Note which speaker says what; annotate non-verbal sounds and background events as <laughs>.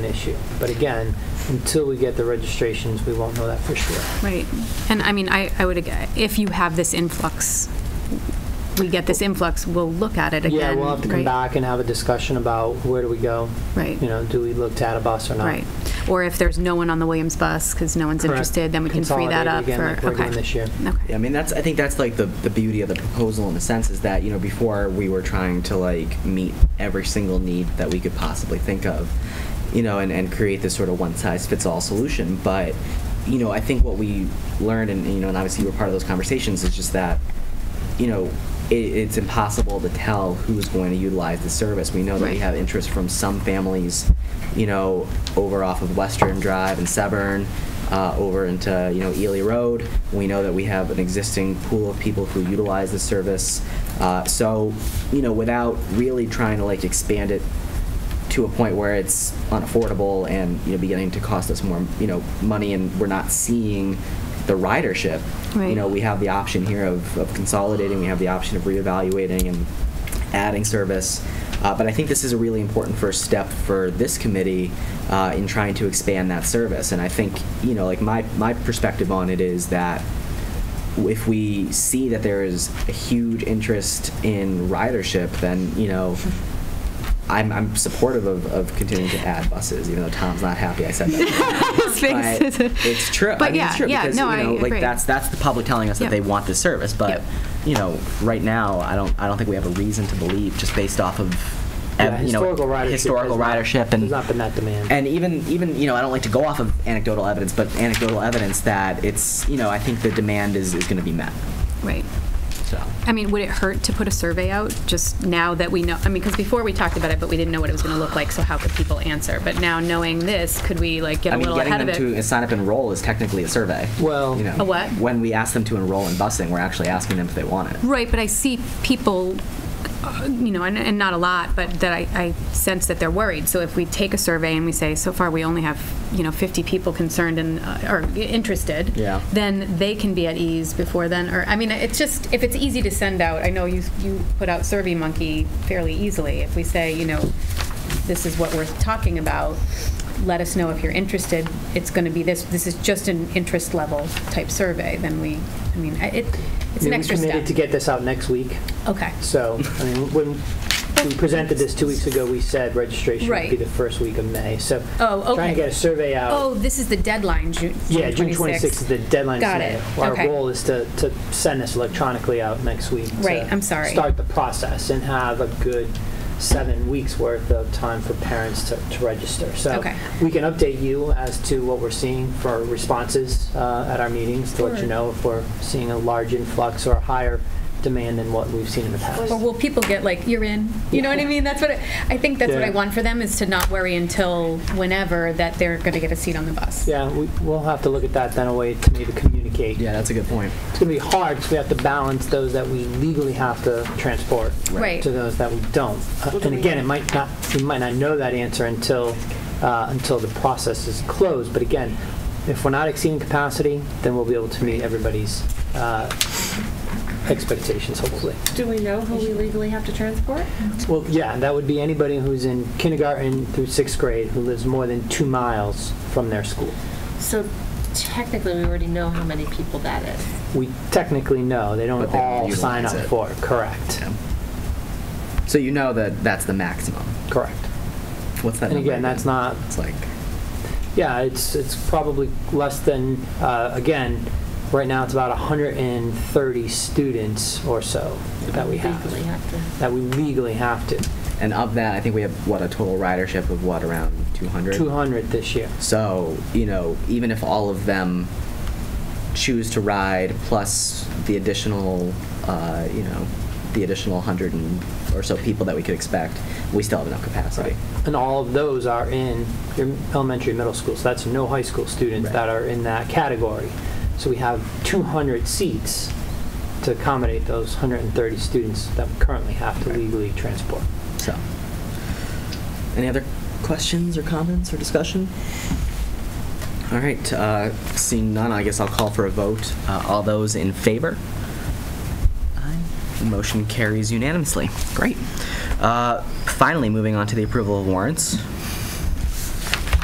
Speaker 1: issue. But again, until we get the registrations, we won't know that for sure.
Speaker 2: Right. And I mean, I, I would, ag- if you have this influx, we get this influx, we'll look at it again.
Speaker 1: Yeah, we'll have to come
Speaker 2: right?
Speaker 1: back and have a discussion about where do we go?
Speaker 2: Right.
Speaker 1: You know, do we look to add a bus or not?
Speaker 2: Right. Or if there's no one on the Williams bus, because no one's
Speaker 1: Correct.
Speaker 2: interested, then we can free that
Speaker 1: Consolidate it
Speaker 2: up
Speaker 1: again
Speaker 2: for,
Speaker 1: like
Speaker 2: okay.
Speaker 1: we're doing this year.
Speaker 2: Okay.
Speaker 3: Yeah, I mean that's I think that's like the the beauty of the proposal in a sense is that you know before we were trying to like meet every single need that we could possibly think of, you know, and and create this sort of one size fits all solution, but you know, I think what we learned and you know and obviously you were part of those conversations is just that you know, it, it's impossible to tell who's going to utilize the service. We know that we
Speaker 2: Right.
Speaker 3: have interest from some families, you know, over off of Western Drive and Severn, uh, over into, you know, Ely Road. We know that we have an existing pool of people who utilize the service. Uh, so, you know, without really trying to like expand it to a point where it's unaffordable and you know beginning to cost us more you know money and we're not seeing the ridership you
Speaker 2: Right.
Speaker 3: know we have the option here of, of consolidating we have the option of reevaluating and adding service uh, but I think this is a really important first step for this committee uh, in trying to expand that service and I think you know like my my perspective on it is that if we see that there is a huge interest in ridership then you know I'm, I'm supportive of, of continuing to add buses, even though Tom's not happy I said that. <laughs>
Speaker 2: His face <laughs> is-
Speaker 3: but it's true. I
Speaker 2: But
Speaker 3: mean,
Speaker 2: yeah,
Speaker 3: it's true
Speaker 2: yeah,
Speaker 3: because,
Speaker 2: no,
Speaker 3: you know,
Speaker 2: I
Speaker 3: like
Speaker 2: agree.
Speaker 3: that's that's the public telling us that
Speaker 2: Yep.
Speaker 3: they want this service. But
Speaker 2: Yep.
Speaker 3: you know, right now, I don't I don't think we have a reason to believe just based off of
Speaker 1: Yeah,
Speaker 3: ev- you know
Speaker 1: historical ridership
Speaker 3: historical
Speaker 1: has not-
Speaker 3: ridership and
Speaker 1: There's not been that demand.
Speaker 3: and even even you know I don't like to go off of anecdotal evidence, but anecdotal evidence that it's you know I think the demand is is going to be met.
Speaker 2: Right.
Speaker 3: So
Speaker 2: I mean, would it hurt to put a survey out just now that we know? I mean, because before we talked about it, but we didn't know what it was going to look like, so how could people answer? But now knowing this, could we like get
Speaker 3: I
Speaker 2: a
Speaker 3: mean,
Speaker 2: little
Speaker 3: getting
Speaker 2: ahead
Speaker 3: them
Speaker 2: of it?
Speaker 3: to sign up and enroll is technically a survey.
Speaker 1: Well-
Speaker 3: you know,
Speaker 2: A what?
Speaker 3: When we ask them to enroll in busing, we're actually asking them if they want it.
Speaker 2: Right, but I see people, uh, you know, and, and not a lot, but that I, I sense that they're worried. So if we take a survey and we say, so far we only have, you know, 50 people concerned and, uh, or interested.
Speaker 3: Yeah.
Speaker 2: Then they can be at ease before then, or, I mean, it's just, if it's easy to send out, I know you, you put out Survey Monkey fairly easily. If we say, you know, this is what we're talking about, let us know if you're interested. It's going to be this, this is just an interest level type survey, then we, I mean, I- it, it's an
Speaker 1: We
Speaker 2: extra step.
Speaker 1: committed to get this out next week,
Speaker 2: Okay.
Speaker 1: so, I mean, when we presented this two weeks ago, we said registration would be
Speaker 2: Right.
Speaker 1: the first week of May, so.
Speaker 2: Oh,
Speaker 1: Trying to
Speaker 2: okay.
Speaker 1: get a survey out.
Speaker 2: Oh, this is the deadline, Ju- June 26th.
Speaker 1: Yeah, June 26th is the deadline.
Speaker 2: Got
Speaker 1: today.
Speaker 2: it.
Speaker 1: Our
Speaker 2: Okay.
Speaker 1: goal is to, to send this electronically out next week. to
Speaker 2: Right, I'm sorry.
Speaker 1: Start the process and have a good seven weeks worth of time for parents to, to register. So
Speaker 2: Okay.
Speaker 1: we can update you as to what we're seeing for responses uh, at our meetings to let you
Speaker 2: Sure.
Speaker 1: know if we're seeing a large influx or a higher demand than what we've seen in the past.
Speaker 2: Or will people get like, you're in? You know what I mean? That's what, I I think that's what I
Speaker 1: Yeah.
Speaker 2: want for them, is to not worry until whenever that they're going to get a seat on the bus.
Speaker 1: Yeah, we, we'll have to look at that then a way to maybe communicate.
Speaker 3: Yeah, that's a good point.
Speaker 1: It's going to be hard because we have to balance those that we legally have to transport.
Speaker 2: Right.
Speaker 1: to those that we don't. Uh, And again, it might not, we might not know that answer until, uh, until the process is closed. But again, if we're not exceeding capacity, then we'll be able to meet everybody's uh, expectations, hopefully.
Speaker 4: Do we know who we legally have to transport?
Speaker 1: Well, yeah, that would be anybody who's in kindergarten through sixth grade who lives more than two miles from their school.
Speaker 4: So technically, we already know how many people that is.
Speaker 1: We technically know, they don't
Speaker 3: But they don't
Speaker 1: all sign up
Speaker 3: utilize it.
Speaker 1: for it. Correct,
Speaker 3: So you know that that's the maximum.
Speaker 1: correct.
Speaker 3: What's that?
Speaker 1: And
Speaker 3: number
Speaker 1: again, that's not
Speaker 3: It's like
Speaker 1: Yeah, it's, it's probably less than, uh, again, right now it's about 130 students or so that we
Speaker 4: Legally
Speaker 1: have,
Speaker 4: have to.
Speaker 1: that we legally have to.
Speaker 3: and of that, I think we have what a total ridership of what around 200.
Speaker 1: 200 this year.
Speaker 3: So you know, even if all of them choose to ride, plus the additional, uh, you know, the additional 100 and or so people that we could expect, we still have enough capacity.
Speaker 1: And all of those are in your elementary, and middle school, so that's no high school students
Speaker 3: Right.
Speaker 1: that are in that category. So we have 200 seats to accommodate those 130 students that we currently have to
Speaker 3: Right.
Speaker 1: legally transport.
Speaker 3: So, any other questions or comments or discussion? All right, uh, seeing none, I guess I'll call for a vote. Uh, all those in favor? Aye. The motion carries unanimously. Great. Uh, finally, moving on to the approval of warrants.